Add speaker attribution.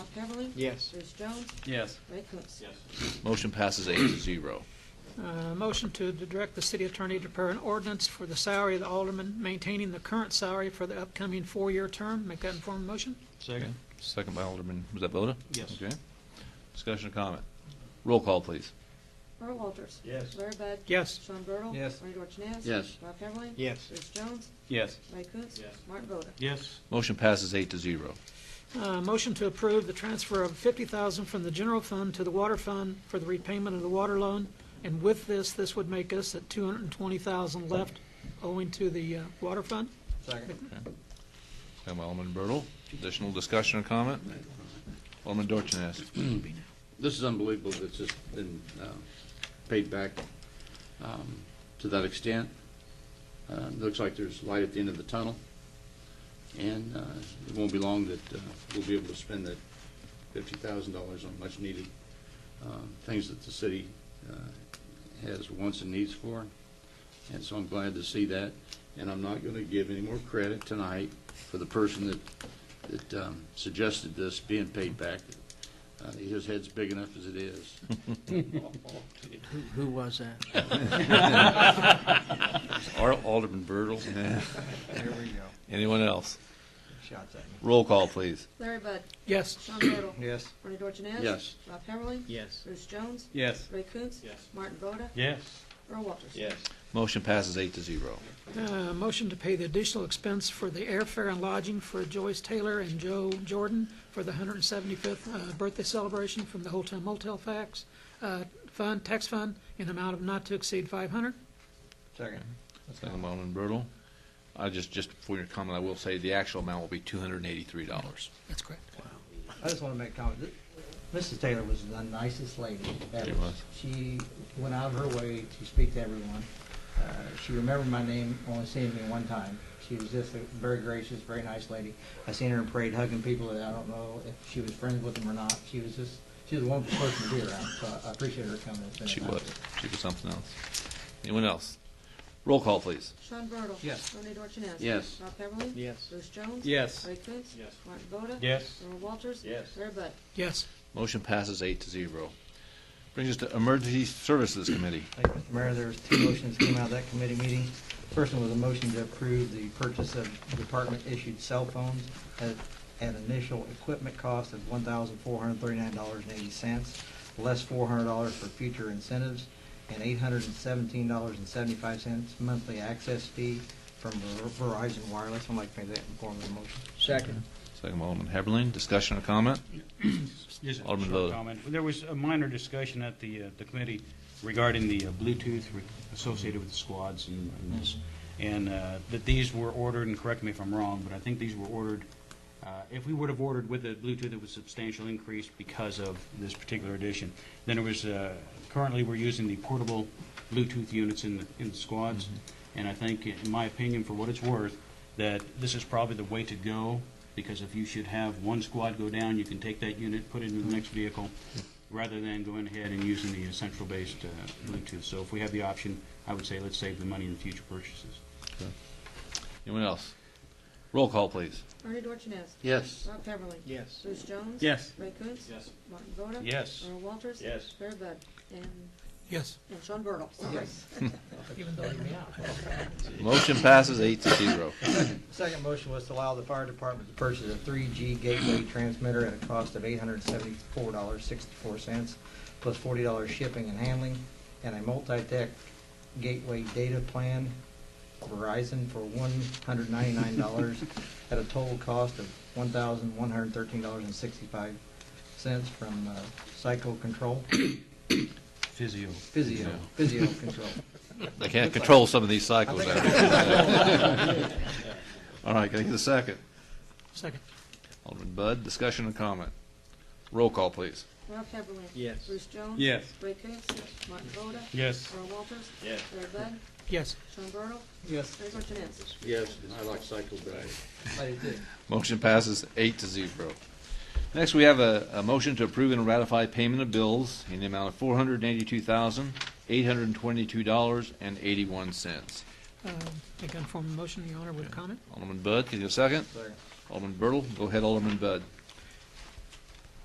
Speaker 1: Heatherly?
Speaker 2: Yes.
Speaker 1: Bruce Jones?
Speaker 3: Yes.
Speaker 1: Ray Coontz? Yes.
Speaker 4: Motion passes eight to zero.
Speaker 5: Uh, Motion to direct the city attorney to prepare an ordinance for the salary of the alderman, maintaining the current salary for the upcoming four-year term. Make that informed motion.
Speaker 2: Second?
Speaker 4: Second by Alderman, was that Voda?
Speaker 2: Yes.
Speaker 4: Okay. Discussion or comment? Roll call, please.
Speaker 1: Earl Walters?
Speaker 2: Yes.
Speaker 1: Larry Bud?
Speaker 5: Yes.
Speaker 1: Sean Bertle?
Speaker 3: Yes.
Speaker 1: Rodney Dorchenez?
Speaker 3: Yes.
Speaker 1: Rob Heatherly?
Speaker 2: Yes.
Speaker 1: Bruce Jones?
Speaker 3: Yes.
Speaker 1: Ray Coontz?
Speaker 3: Yes.
Speaker 1: Martin Voda?
Speaker 2: Yes.
Speaker 4: Motion passes eight to zero.
Speaker 5: Uh, Motion to approve the transfer of fifty thousand from the general fund to the water fund for the repayment of the water loan. And with this, this would make us at two hundred and twenty thousand left owing to the uh, water fund.
Speaker 2: Second?
Speaker 4: Second by Alderman Bertle. Additional discussion or comment? Alderman Dorchenez.
Speaker 6: This is unbelievable that it's just been uh, paid back um, to that extent. Uh, it Looks like there's light at the end of the tunnel, and uh, it won't be long that uh, we'll be able to spend that $50,000 on much-needed um, things that the city uh, has wants and needs for, and so I'm glad to see that. And I'm not going to give any more credit tonight for the person that, that um, suggested this being paid back. Uh, His head's big enough as it is.
Speaker 7: Who was that?
Speaker 4: Al- Alderman Bertle.
Speaker 3: There we go.
Speaker 4: Anyone else?
Speaker 3: Shots at me.
Speaker 4: Roll call, please.
Speaker 1: Larry Bud?
Speaker 5: Yes.
Speaker 1: Sean Bertle?
Speaker 2: Yes.
Speaker 1: Rodney Dorchenez?
Speaker 6: Yes.
Speaker 1: Rob Heatherly?
Speaker 2: Yes.
Speaker 1: Bruce Jones?
Speaker 3: Yes.
Speaker 1: Ray Coontz?
Speaker 3: Yes.
Speaker 1: Martin Voda?
Speaker 2: Yes.
Speaker 1: Earl Walters?
Speaker 2: Yes.
Speaker 4: Motion passes eight to zero.
Speaker 5: Uh, Motion to pay the additional expense for the airfare and lodging for Joyce Taylor and Joe Jordan for the 175th uh, birthday celebration from the Hotel Motel Facts uh, Fund, Tax Fund, in amount of not to exceed 500.
Speaker 2: Second?
Speaker 4: Second by Alderman Bertle. I just, just for your comment, I will say the actual amount will be two hundred and eighty-three dollars.
Speaker 5: That's correct.
Speaker 7: I just want to make a comment. Mrs. Taylor was the nicest lady. ever.
Speaker 4: She was.
Speaker 7: She went out of her way to speak to everyone. Uh, She remembered my name, only seeing me one time. She was just a very gracious, very nice lady. I seen her in parade hugging people that I don't know if she was friends with them or not. She was just, she was a wonderful person to be around, so I appreciate her coming. and spending
Speaker 4: She
Speaker 7: time
Speaker 4: was,
Speaker 7: with us.
Speaker 4: she was something else. Anyone else? Roll call, please.
Speaker 1: Sean Bertle?
Speaker 2: Yes.
Speaker 1: Rodney Dorchenez?
Speaker 6: Yes.
Speaker 1: Rob Heatherly?
Speaker 2: Yes.
Speaker 1: Bruce Jones?
Speaker 3: Yes.
Speaker 1: Ray Coontz?
Speaker 3: Yes.
Speaker 1: Martin Voda?
Speaker 2: Yes.
Speaker 1: Earl Walters?
Speaker 3: Yes.
Speaker 1: Larry Bud?
Speaker 5: Yes.
Speaker 4: Motion passes eight to zero. Brings us to Emergency Services Committee.
Speaker 7: Thank you, Mr. Mayor, there was two motions came out of that committee meeting. First one was a motion to approve the purchase of department-issued cell phones at an initial equipment cost of one thousand four hundred thirty-nine dollars and eighty cents, less four hundred dollars for future incentives, and eight hundred and seventeen dollars and seventy-five cents monthly access fee from Ver- Verizon Wireless. I'd like to make that in form of a motion.
Speaker 2: Second?
Speaker 4: Second by Alderman Heberlin, discussion or comment?
Speaker 8: Just a
Speaker 4: Alderman
Speaker 8: short
Speaker 4: Lowe.
Speaker 8: comment. There was a minor discussion at the, uh, the committee regarding the uh, Bluetooth re- associated with the squads and, and this, and uh, that these were ordered, and correct me if I'm wrong, but I think these were ordered, uh, if we would have ordered with the Bluetooth, it was substantial increase because of this particular edition. Then it was, uh, currently, we're using the portable Bluetooth units in, the in the squads, and I think, in my opinion, for what it's worth, that this is probably the way to go, because if you should have one squad go down, you can take that unit, put it into the next vehicle, rather than going ahead and using the uh, central-based uh, Bluetooth. So if we have the option, I would say let's save the money in future purchases.
Speaker 4: Anyone else? Roll call, please.
Speaker 1: Rodney Dorchenez?
Speaker 6: Yes.
Speaker 1: Rob Heatherly?
Speaker 2: Yes.
Speaker 1: Bruce Jones?
Speaker 3: Yes.
Speaker 1: Ray Coontz?
Speaker 3: Yes.
Speaker 1: Martin Voda?
Speaker 8: Yes.
Speaker 1: Earl Walters?
Speaker 3: Yes.
Speaker 1: Larry Bud? And,
Speaker 5: Yes.
Speaker 1: and Sean Bertle? Yes.
Speaker 5: Even though you may not.
Speaker 4: Motion passes eight to zero.
Speaker 7: Second motion was to allow the fire department to purchase a 3G gateway transmitter at a cost of $874.64, plus $40 shipping and handling, and a multi-tech gateway data plan Verizon for $199 at a total cost of $1,113.65 from uh, Psycho Control,
Speaker 8: Physio.
Speaker 7: Physio, Physio Control.
Speaker 4: They can't control some of these
Speaker 7: I
Speaker 4: cycles.
Speaker 7: think
Speaker 4: out
Speaker 7: I-
Speaker 4: there. All right, can I get a second?
Speaker 5: Second.
Speaker 4: Alderman Bud, discussion or comment? Roll call, please.
Speaker 1: Rob Heatherly?
Speaker 2: Yes.
Speaker 1: Bruce Jones?
Speaker 3: Yes.
Speaker 1: Ray Coontz? Martin Voda?
Speaker 8: Yes.
Speaker 1: Earl Walters?
Speaker 3: Yes.
Speaker 1: Larry Bud?
Speaker 5: Yes.
Speaker 1: Sean Bertle?
Speaker 7: Yes,
Speaker 1: Larry Dorchenez?
Speaker 6: Yes. I like cycle better.
Speaker 7: I did.
Speaker 4: Motion passes eight to zero. Next, we have a, a motion to approve and ratify payment of bills in the amount of four hundred and eighty-two thousand, eight hundred and twenty-two dollars and eighty-one cents.
Speaker 5: Um, Make that in form of motion, Your Honor, with a comment?
Speaker 4: Alderman Bud, can you get a second?
Speaker 7: Second.
Speaker 4: Alderman Bertle, go ahead, Alderman Bud.